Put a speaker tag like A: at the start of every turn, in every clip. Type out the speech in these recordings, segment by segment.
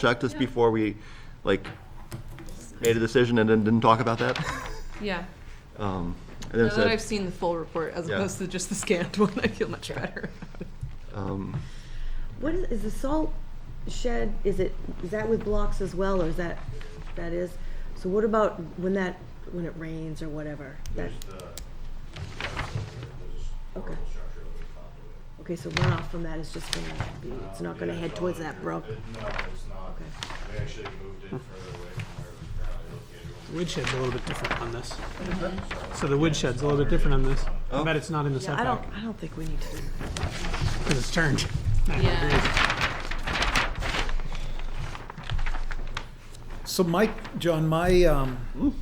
A: checked this before we, like, made a decision and then didn't talk about that?
B: Yeah,
A: Um, and then
B: now that I've
A: said,
B: seen the full report as
A: Yeah.
B: opposed to just the scanned one, I feel much better.
A: um,
C: What is, is the salt shed, is it, is that with blocks as well, or is that, that is? So what about when that, when it rains or whatever? That,
D: There's the, there's a
C: Okay.
D: horrible structure over the top of
C: okay, so runoff from that is just gonna be,
D: it.
C: it's not
D: Um,
C: gonna
D: yeah,
C: head
D: it's
C: towards
D: all
C: that
D: under-
C: brook?
D: it- No, it's not.
C: Okay.
D: We actually moved it further away from where it was currently located.
E: Woodshed's a little bit different on this. So the woodshed's a little bit different on this. I bet it's not in the
C: Yeah, I don't,
E: setback,
C: I don't think we need to,
E: because it's turned. Ninety
B: Yeah.
E: degrees.
F: So my, John, my, um,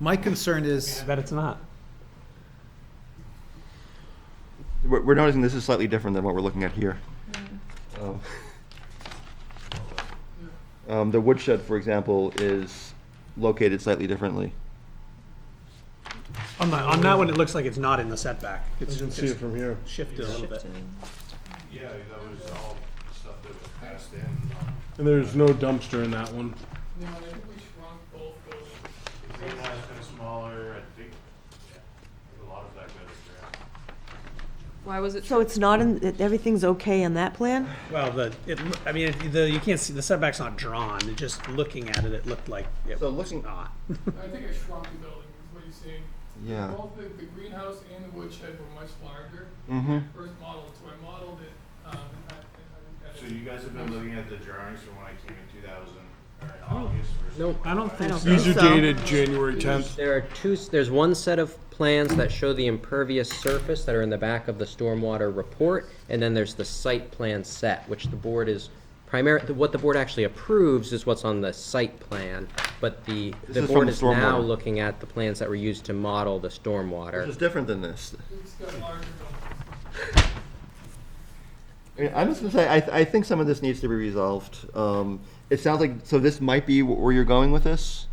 F: my concern
E: I
F: is,
E: bet it's not.
A: we're, we're noticing this is slightly different than what we're looking at here.
B: Hmm.
A: Um, Um, the woodshed, for example, is located slightly differently.
E: On the, on that one, it looks like it's not in the setback. It's
G: You can see it
E: it's
G: from here.
E: shifted a little bit.
D: Yeah, that was all stuff that was passed in. um,
G: And there's no dumpster in that one.
D: No, I think we shrunk both those. Green line's been smaller, I think, yeah, a lot of that goes around.
B: Why was it?
C: so it's not in, that everything's okay on that plan?
E: Well, the, it, loo- I mean, it- the, you can't see, the setback's not drawn. It's Just looking at it, it looked like it
A: So
E: was
A: looking-
E: not.
H: I think I shrunk the building, is what you're seeing.
A: Yeah.
H: Both the, the greenhouse and the woodshed were much larger. First model, so I modeled it, um, and I, and I.
D: So you guys have been looking at the drawings from when I came in two thousand, or in August versus.
E: No, I don't think so.
G: These are dated January 10th.
I: There are two, s- there's one set of plans that show the impervious surface that are in the back of the stormwater report, and then there's the site plan set, which the board is primary, what the board actually approves is what's on the site plan, but the,
A: This
I: the
A: is from
I: board
A: the
I: is now
A: stormwater.
I: looking at the plans that were used to model the
A: This
I: stormwater.
A: is different than this.
H: It's got larger buildings.
A: I- I'm just gonna say, I, I think some of this needs to be resolved. Um, it sounds like, so this might be wh- where you're going with this,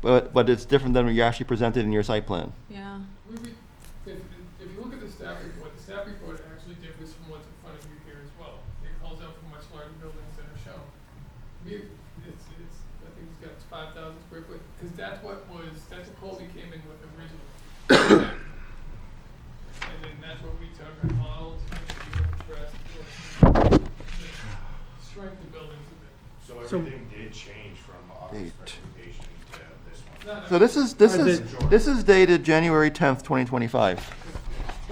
A: but, but it's different than what you actually presented in your site plan.
B: Yeah,
H: We, we, if, if you look at the staff report, the staff report actually differs from what's in front of you here as well. It calls out for much larger buildings than are shown. We, it's, it's, I think it's got five thousand square foot, cause that's what was, that's what Colby came in with originally. And then that's what we took and modeled, and we addressed, what- shrink the buildings a bit.
D: So everything did change from August
A: Date.
D: recommendation to this one.
H: Not
A: So this is, this
E: Are
A: is,
E: the-
A: this is dated January tenth, twenty twenty-five.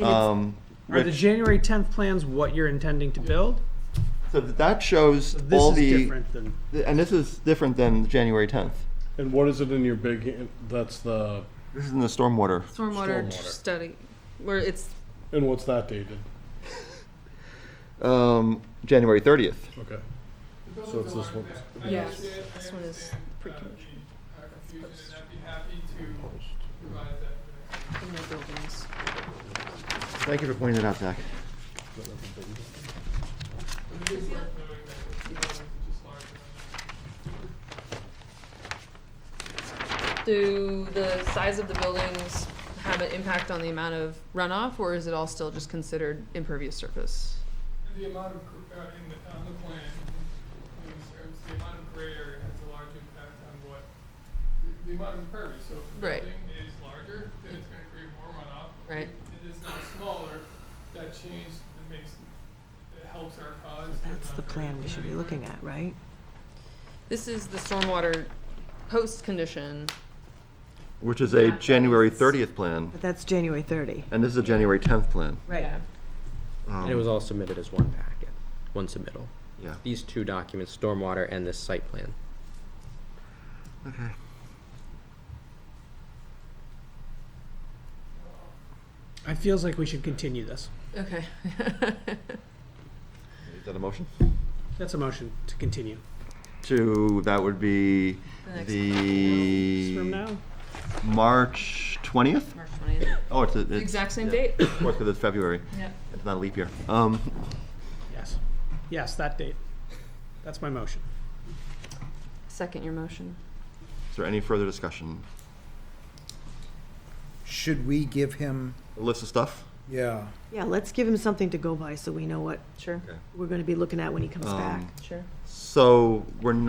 A: Um,
E: Are the
A: which,
E: January tenth plans what you're intending to build?
A: so that shows
E: This
A: all
E: is
A: the,
E: different than,
A: and this is different than January tenth.
G: And what is it in your big, that's the,
A: This is in the stormwater.
B: stormwater
G: Stormwater.
B: study, where it's,
G: and what's that dated?
A: Um, January thirtieth.
G: Okay.
H: The
G: So it's
H: buildings
G: this
H: aren't
G: one.
H: there.
B: Yeah.
H: I understand, I
B: This one is
H: understand, uh,
B: pre-conditioned.
H: the, uh, confusion, and I'd be happy to provide that. for the-
B: in the buildings.
A: Thank you for pointing that out, Zach.
H: But it is worth noting that the buildings are just larger than
B: Do the size of the buildings have an impact on the amount of runoff, or is it all still just considered impervious surface?
H: that. The amount of, gr- uh, in the, on the plan, in terms, the amount of gray area has a large impact on what, the- the amount of impervious, so if the
B: Right.
H: building is larger, then it's gonna create more runoff.
B: Right.
H: If It is now smaller, that change, that makes, that helps our cause.
C: That's the plan we should be looking at, right?
B: This is the stormwater post condition.
A: Which is a January thirtieth plan,
C: But that's January thirty.
A: and this is a January tenth plan. Um,
C: Right.
I: And it was all submitted as one packet, one submittal.
A: Yeah.
I: These two documents, stormwater and this site plan.
A: Okay.
E: it feels like we should continue this.
B: Okay.
A: Is that a motion?
E: That's a motion to continue.
A: To, that would be
E: From
A: the
E: now?
A: March twentieth?
B: March twentieth,
A: Oh, it's, a- it's.
B: exact same
A: yeah.
B: date?
A: Of course, because it's February.
B: Yep.
A: It's not a leap year. Um,
E: Yes. Yes, that date. That's my motion.
B: Second your motion.
A: is there any further discussion?
F: should we give him
A: A list of stuff?
F: yeah.
C: Yeah, let's give him something to go by so we know what
B: Sure,
C: we're gonna be looking at when he comes back.
B: sure.
A: So we're